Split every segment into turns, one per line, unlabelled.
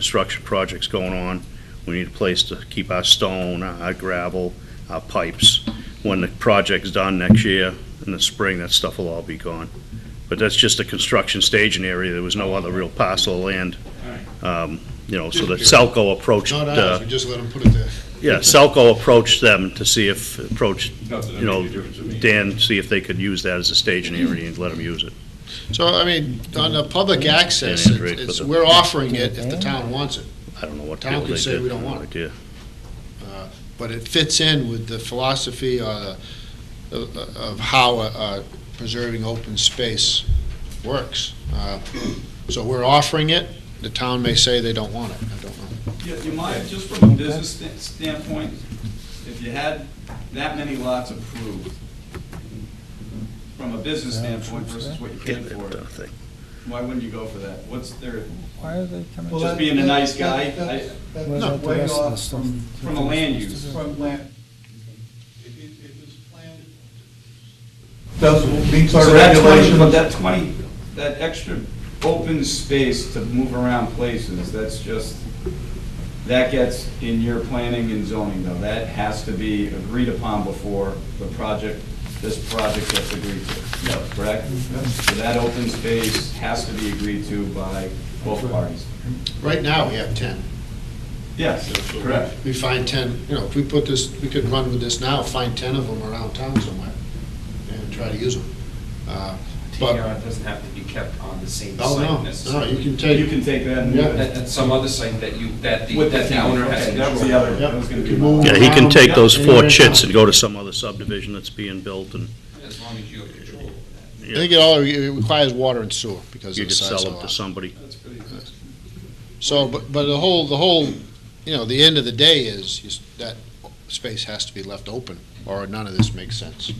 construction projects going on. We need a place to keep our stone, our gravel, our pipes. When the project's done next year, in the spring, that stuff will all be gone. But that's just a construction staging area, there was no other real parcel of land. Um, You know, so that Selco approached,
Not ours,
uh,
we just let them put it there.
yeah, Selco approached them to see if, approached,
Not that it
you know,
made a difference to me.
Dan, see if they could use that as a staging area and let them use it.
So, I mean, on the public access,
Yeah, Android
it's- it's,
for the-
we're offering it if the town wants it,
I don't know what the
Town
hell they
could
did.
say we don't
I have no
want it.
idea.
uh, but it fits in with the philosophy or the, of how uh, preserving open space works. Uh, So we're offering it, the town may say they don't want it, I don't know.
Yeah, You might, just from a business sta- standpoint, if you had that many lots approved, from a business standpoint versus what you
Get
can
that
afford,
done thing.
why wouldn't you go for that? What's there,
Why are they coming?
just being a nice guy, I-
That's
What about the
way
rest of the
off
stuff?
from-
from a land use.
from land. It it- it was planned. Does, meets
So
our
that
regulations.
twenty, but that twenty, that extra open space to move around places, that's just, that gets in your planning and zoning though. That has to be agreed upon before the project, this project gets agreed to. Correct? So that open space has to be agreed to by both parties.
Right now, we have 10.
Yes, correct.
We find 10, you know, if we put this, we could run with this now, find 10 of them around town somewhere and try to use them. Uh, But,
TDR doesn't have to be kept on the same
oh,
site
no, no,
necessarily.
you can take.
You can take that and move
Yeah.
it.
At, at some other site that you, that the,
With
that the owner has
Okay, That was the
control.
other, that was gonna be.
Yep.
my-
Yeah, he can take those four
Yeah.
chits and go to some other subdivision that's being built and
As long as you have control.
I think it all, it requires water and sewer because
you
of the
could
size
sell
of the
them to
lot.
somebody.
That's pretty good.
So, but, but the whole, the whole, you know, the end of the day is, is that space has to be left open, or none of this makes sense.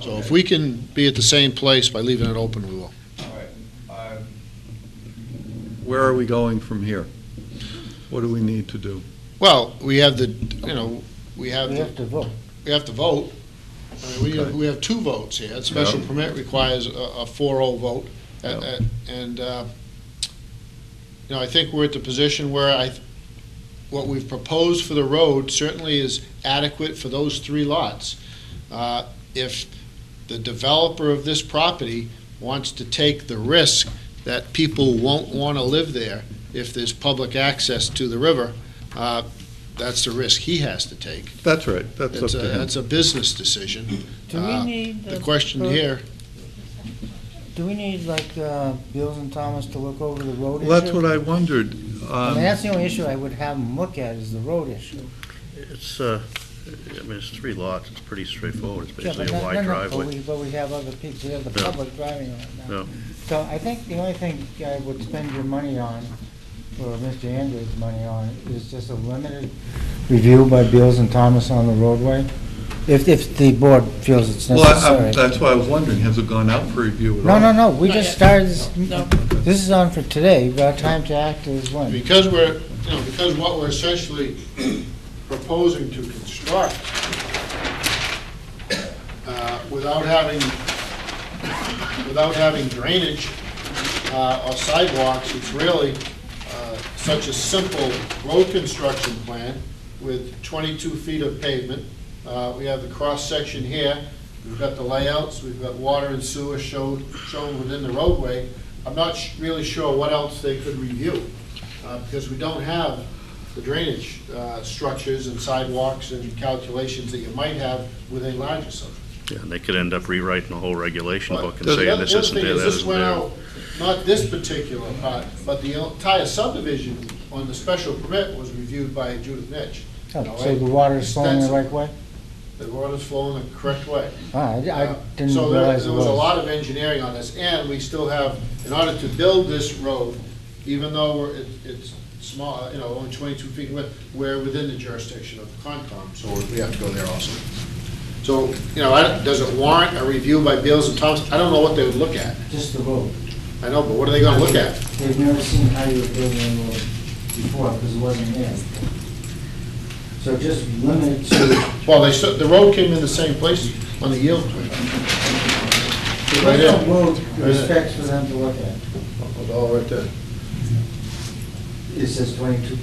So if we can be at the same place by leaving it open, we will.
All right. Uh,
Where are we going from here? What do we need to do?
Well, we have the, you know, we have,
We
the-
have to vote.
we have to vote. I mean, We have, we have two votes here. Special
Yeah.
permit requires a, a four-oh vote. At-
Yeah.
at- And, uh, you know, I think we're at the position where I, th- what we've proposed for the road certainly is adequate for those three lots. Uh, If the developer of this property wants to take the risk that people won't want to live there if there's public access to the river, uh, that's the risk he has to take.
That's right, that's up
It's a,
to him.
that's a business decision.
Do we
Uh,
need?
The
uh,
question
per-
here,
Do we need like uh, Beals and Thomas to look over the road issue?
Well, that's what I wondered.
I
um,
mean, that's the only issue I would have them look at is the road issue.
It's, uh, I mean, it's three lots, it's pretty straightforward, it's
Yeah, but
basically a
no- no,
wide
no, But
driveway.
we, but we have other people, we have the
Yeah.
public driving on it
Yeah.
now. So I think the only thing I would spend your money on, or Mr. Andrews' money on, is just a limited review by Beals and Thomas on the roadway, if, if the board feels it's
Well, I- I-
necessary.
that's why I was wondering, has it gone out for review at
No,
all?
no, no, we
Not
just
yet.
started, this-
No.
this is on for today, but our time to act is when?
because we're, you know, because what we're essentially proposing to construct, uh, without having, without having drainage uh, or sidewalks, it's really uh, such a simple road construction plan with 22 feet of pavement. Uh, We have the cross-section here, we've got the layouts, we've got water and sewer shown, shown within the roadway. I'm not sh- really sure what else they could review, uh, because we don't have the drainage uh, structures and sidewalks and calculations that you might have with a larger subdivision.
Yeah, And they could end up rewriting the whole regulation book and
But the
saying
other-
this isn't
The
there,
other
that
thing is, this
isn't
went
there.
out, not this particular part, but the entire subdivision on the special permit was reviewed by Judith Nitch.
Oh, So the water is flowing the right way?
The water's flowing the correct way.
Ah, I I
Uh,
didn't
So there-
realize it
there was a
was.
lot of engineering on this, and we still have, in order to build this road, even though we're- it- it's small, you know, only 22 feet width, we're within the jurisdiction of Concom, so we have to go there also. So, you know, I don't- does it warrant a review by Beals and Thomas? I don't know what they would look at.
Just the road.
I know, but what are they gonna look at?
They've never seen how you were building a road before, because it wasn't there. So just limited to,
Well, they, said the road came in the same place on the yield plan. Right
there's
there.
no road respects for them to look at.
Oh, right there.
it says twenty-two